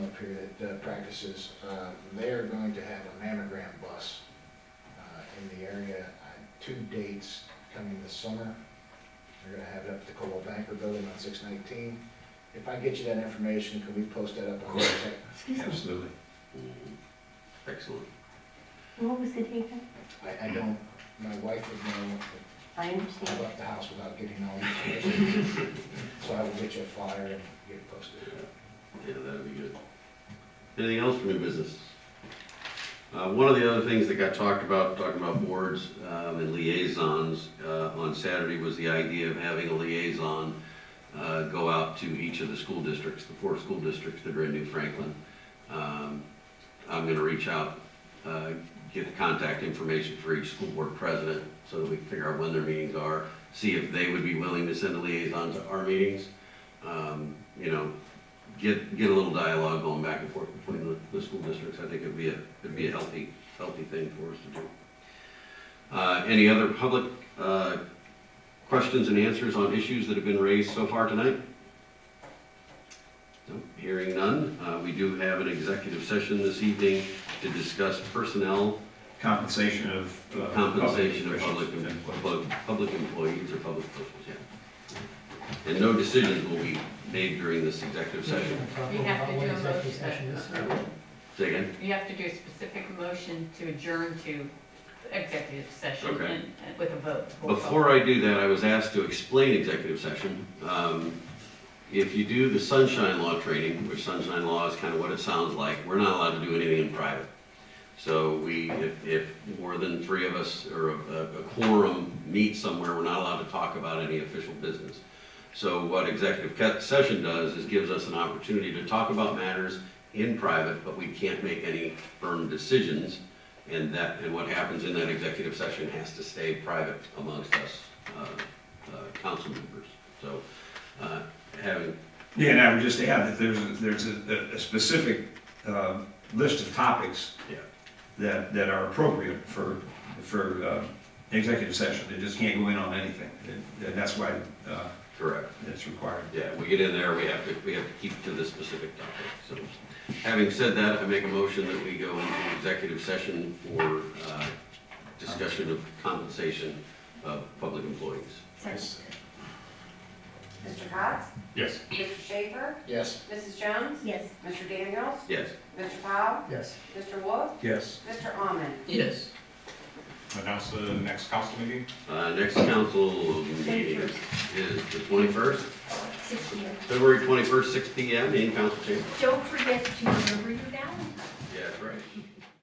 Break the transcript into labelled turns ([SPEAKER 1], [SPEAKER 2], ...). [SPEAKER 1] contractor that uh, practices, uh, they're going to have a mammogram bus uh, in the area, uh, two dates coming this summer. They're gonna have it up at the Coldwell Banker Building on six nineteen. If I get you that information, can we post that up on the website?
[SPEAKER 2] Absolutely. Excellent.
[SPEAKER 3] What was the date?
[SPEAKER 1] I, I don't, my wife would know,
[SPEAKER 3] I
[SPEAKER 1] if I
[SPEAKER 3] understand.
[SPEAKER 1] left the house without getting all the information. So I will get you a flyer and get it posted.
[SPEAKER 2] Yeah, that'd be good. Anything else from your business? Uh, one of the other things that got talked about, talking about boards, um, and liaisons, uh, on Saturday was the idea of having a liaison, uh, go out to each of the school districts, the four school districts that are in New Franklin. Um, I'm gonna reach out, uh, get the contact information for each school board president, so that we can figure out when their meetings are, see if they would be willing to send a liaison to our meetings. Um, you know, get, get a little dialogue going back and forth between the, the school districts, I think it'd be a, it'd be a healthy, healthy thing for us to do. Uh, any other public, uh, questions and answers on issues that have been raised so far tonight? No, Hearing none, uh, we do have an executive session this evening to discuss personnel,
[SPEAKER 4] compensation of. uh,
[SPEAKER 2] compensation of public,
[SPEAKER 4] officials and employees.
[SPEAKER 2] public, public employees or public officials, yeah. And no decisions will be made during this executive session.
[SPEAKER 5] You have to do a motion,
[SPEAKER 2] Say again?
[SPEAKER 5] you have to do a specific motion to adjourn to executive session
[SPEAKER 2] Okay.
[SPEAKER 5] and- and with a vote. Roll call.
[SPEAKER 2] Before I do that, I was asked to explain executive session. Um, If you do the sunshine law training, which sunshine law is kind of what it sounds like, we're not allowed to do anything in private. So we, if, if more than three of us or a a quorum meet somewhere, we're not allowed to talk about any official business. So what executive ca- session does is gives us an opportunity to talk about matters in private, but we can't make any firm decisions. And that, and what happens in that executive session has to stay private amongst us, uh, uh, council members. So, uh, having,
[SPEAKER 4] Yeah, and I would just add that there's, a- there's a, a- a specific uh, list of topics
[SPEAKER 2] Yeah.
[SPEAKER 4] that, that are appropriate for, for uh, executive session. They just can't go in on anything. And- And that's why uh,
[SPEAKER 2] correct,
[SPEAKER 4] it's required.
[SPEAKER 2] yeah, we get in there, we have to, we have to keep to the specific topic. So, having said that, I make a motion that we go into executive session for, uh, discussion of compensation of public employees.
[SPEAKER 6] Mr. Cox?
[SPEAKER 4] Yes.
[SPEAKER 6] Mr. Schaefer?
[SPEAKER 1] Yes.
[SPEAKER 6] Mrs. Jones?
[SPEAKER 3] Yes.
[SPEAKER 6] Mr. Daniels?
[SPEAKER 2] Yes.
[SPEAKER 6] Mr. Powell?
[SPEAKER 7] Yes.
[SPEAKER 6] Mr. Wolf?
[SPEAKER 4] Yes.
[SPEAKER 6] Mr. Almond?
[SPEAKER 7] Yes.
[SPEAKER 8] announce the next council meeting?
[SPEAKER 2] Uh, next council meeting is the twenty-first,
[SPEAKER 3] Six P M.
[SPEAKER 2] February twenty-first, six P M in council chamber.
[SPEAKER 3] Don't forget to remember your balance.
[SPEAKER 2] Yeah, that's right.